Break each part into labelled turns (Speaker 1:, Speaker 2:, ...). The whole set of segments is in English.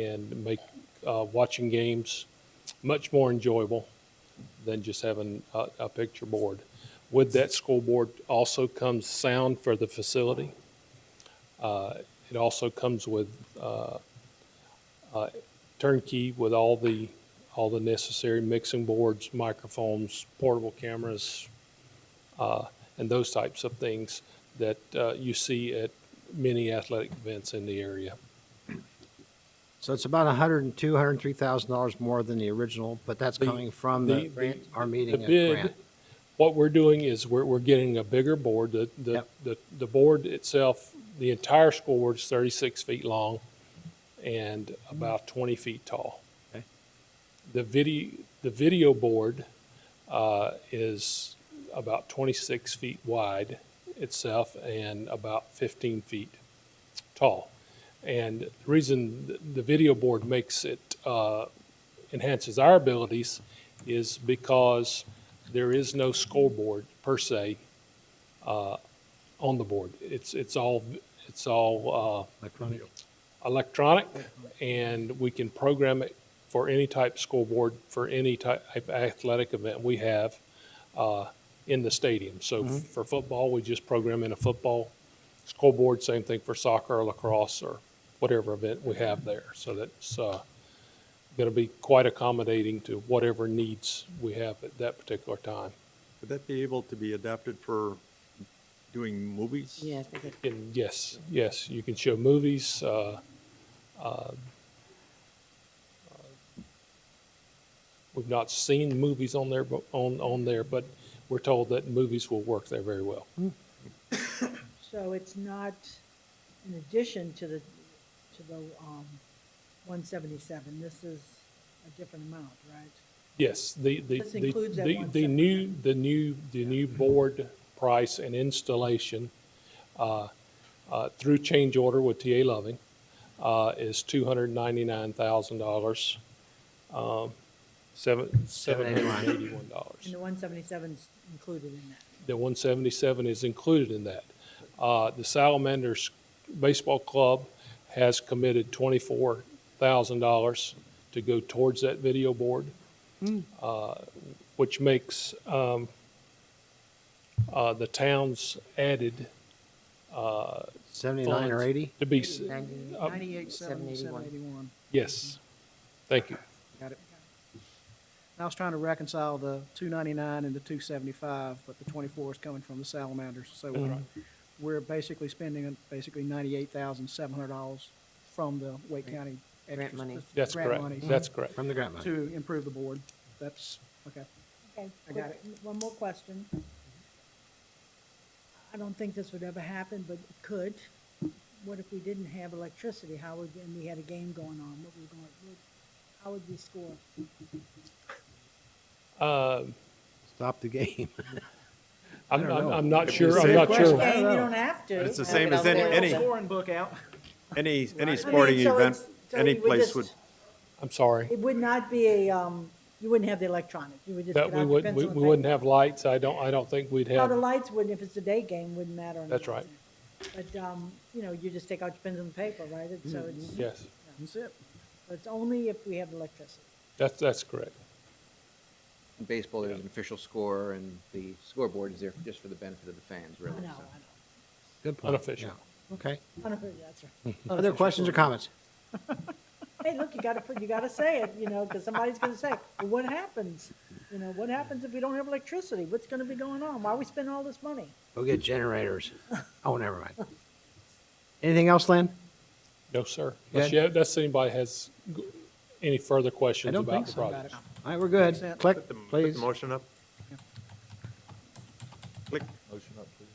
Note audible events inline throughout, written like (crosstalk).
Speaker 1: and make uh, watching games much more enjoyable than just having a, a picture board. With that school board also comes sound for the facility. Uh, it also comes with uh, uh, turnkey with all the all the necessary mixing boards, microphones, portable cameras, uh, and those types of things that uh, you see at many athletic events in the area.
Speaker 2: So it's about a hundred and two, hundred and three thousand dollars more than the original, but that's
Speaker 1: The-
Speaker 2: coming from the
Speaker 1: the-
Speaker 2: grant,
Speaker 1: the-
Speaker 2: our
Speaker 1: The
Speaker 2: meeting at
Speaker 1: bid,
Speaker 2: grant.
Speaker 1: what we're doing is we're, we're getting a bigger board. The, the,
Speaker 2: Yep.
Speaker 1: the, the board itself, the entire school board is thirty-six feet long and about twenty feet tall.
Speaker 2: Okay.
Speaker 1: The video, the video board, uh, is about twenty-six feet wide itself and about fifteen feet tall. And the reason th- the video board makes it, uh, enhances our abilities is because there is no scoreboard per se uh, on the board. It's, it's all, it's all
Speaker 2: Electronic.
Speaker 1: uh, electronic, and we can program it for any type scoreboard, for any type athletic event we have uh, in the stadium. So f- for football, we just program in a football scoreboard, same thing for soccer or lacrosse or whatever event we have there. So that's going to be quite accommodating to whatever needs we have at that particular time.
Speaker 3: Would that be able to be adapted for doing movies?
Speaker 4: Yeah, I think it-
Speaker 1: And yes, yes, you can show movies. Uh, uh, we've not seen movies on there, but on on there, but we're told that movies will work there very well.
Speaker 4: so it's not in addition to the, to the, um, one seventy-seven, this is a different amount, right?
Speaker 1: Yes, the the
Speaker 4: This
Speaker 1: the,
Speaker 4: includes that
Speaker 1: the,
Speaker 4: one
Speaker 1: the
Speaker 4: separate-
Speaker 1: new the new the new board price and installation uh, uh, through change order with TA Loving uh, is two hundred ninety nine thousand dollars. Um, Seven, seven hundred and eighty-one dollars.
Speaker 4: And the one seventy-seven's included in that.
Speaker 1: The 177 is included in that. Uh, The Salamanders Baseball Club has committed $24,000 to go towards that video board, uh, which makes um, uh, the town's added uh,
Speaker 2: Seventy-nine or
Speaker 1: funds
Speaker 2: eighty?
Speaker 1: to be, s- Uh,
Speaker 5: Ninety-eight, seven, seven eighty-one.
Speaker 1: yes, thank you.
Speaker 5: Got it. I was trying to reconcile the two ninety-nine and the two seventy-five, but the twenty-four is coming from the salamanders, so we're, we're basically spending basically ninety-eight thousand, seven hundred dollars from the Wake County. extras-
Speaker 6: money.
Speaker 1: That's
Speaker 5: grant
Speaker 1: correct,
Speaker 5: money
Speaker 1: that's correct.
Speaker 2: From the grant money.
Speaker 5: To improve the board. That's, okay.
Speaker 4: Okay,
Speaker 5: I got
Speaker 4: quick- one more question. I don't think this would ever happen, but it could. What if we didn't have electricity? How would, and we had a game going on, what would we going, what- how would we score?
Speaker 1: Uh,
Speaker 2: Stop the game. (laughs)
Speaker 1: I'm
Speaker 2: don't
Speaker 1: I'm-
Speaker 2: know.
Speaker 1: I'm not
Speaker 3: If we
Speaker 1: sure, I'm
Speaker 3: say
Speaker 1: not
Speaker 5: question-
Speaker 1: sure.
Speaker 5: I don't
Speaker 4: Game, you
Speaker 5: know.
Speaker 4: don't have to.
Speaker 3: But it's the
Speaker 4: I
Speaker 3: same
Speaker 4: mean,
Speaker 3: as any,
Speaker 6: Well,
Speaker 3: any,
Speaker 5: Scoring book out.
Speaker 4: (laughs)
Speaker 3: any, any
Speaker 4: so
Speaker 3: sporting event,
Speaker 4: it's- so
Speaker 3: any
Speaker 4: you would
Speaker 3: place
Speaker 4: just-
Speaker 3: would,
Speaker 1: I'm sorry.
Speaker 4: It would not be a, um, you wouldn't have the electronic, you would just get
Speaker 1: That
Speaker 4: out
Speaker 1: we
Speaker 4: the pencil
Speaker 1: wouldn't,
Speaker 4: and
Speaker 1: we
Speaker 4: paper.
Speaker 1: we wouldn't have lights, I don't, I don't think we'd
Speaker 4: Now,
Speaker 1: have.
Speaker 4: the lights wouldn't, if it's a day game, wouldn't matter. on
Speaker 1: That's
Speaker 4: the
Speaker 1: right.
Speaker 4: outside. But, um, you know, you just take out your pencil and paper, right? It's- So it's,
Speaker 1: Yes,
Speaker 5: That's it.
Speaker 4: it's only if we have electricity.
Speaker 1: that's, that's correct.
Speaker 6: In baseball, there's an official score, and the scoreboard is there just for the benefit of the fans,
Speaker 4: I
Speaker 6: really.
Speaker 4: know,
Speaker 6: so.
Speaker 4: I
Speaker 2: Good point.
Speaker 1: Unofficial.
Speaker 2: Yeah. Okay.
Speaker 4: know. (laughs) I know, that's right.
Speaker 2: Other questions or comments?
Speaker 4: Hey, look, you gotta put, you gotta say it, you know, because somebody's gonna say, well, what happens? You know, what happens if we don't have electricity? What's gonna be going on? Why are we spending all this money?
Speaker 2: Go get generators. Oh, never mind. Anything else, Lynn?
Speaker 1: No, sir. Unless
Speaker 2: Good.
Speaker 1: you have- unless anybody has g- any further questions
Speaker 2: don't
Speaker 1: about
Speaker 2: think
Speaker 1: the
Speaker 2: so.
Speaker 1: project.
Speaker 2: All right, we're good.
Speaker 5: Consent.
Speaker 2: Click,
Speaker 3: put the, put
Speaker 2: please.
Speaker 3: the motion up. Click. Motion up, please.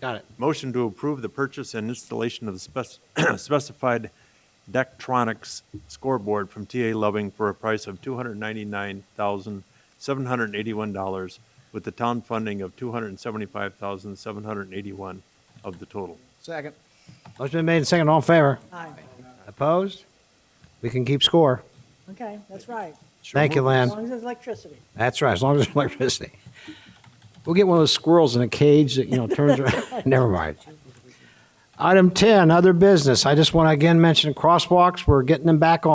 Speaker 2: Got it.
Speaker 3: Motion to approve the purchase and installation of the spec- (clears throat) specified Daktronics scoreboard from TA Loving for a price of $299,781, with the town funding of $275,781 of the total.
Speaker 5: Second.
Speaker 2: Motion been made and seconded. All in favor?
Speaker 4: Aye.
Speaker 2: Opposed? We can keep score.
Speaker 4: Okay, that's right.
Speaker 2: Thank you,
Speaker 4: As
Speaker 2: Lynn.
Speaker 4: long as there's electricity.
Speaker 2: That's right, as long as there's (laughs) electricity. (laughs) We'll get one of those squirrels in a cage that, you know, turns around. Never mind. Uh, Item 10, other business. I just want to again mention crosswalks. We're getting them back on.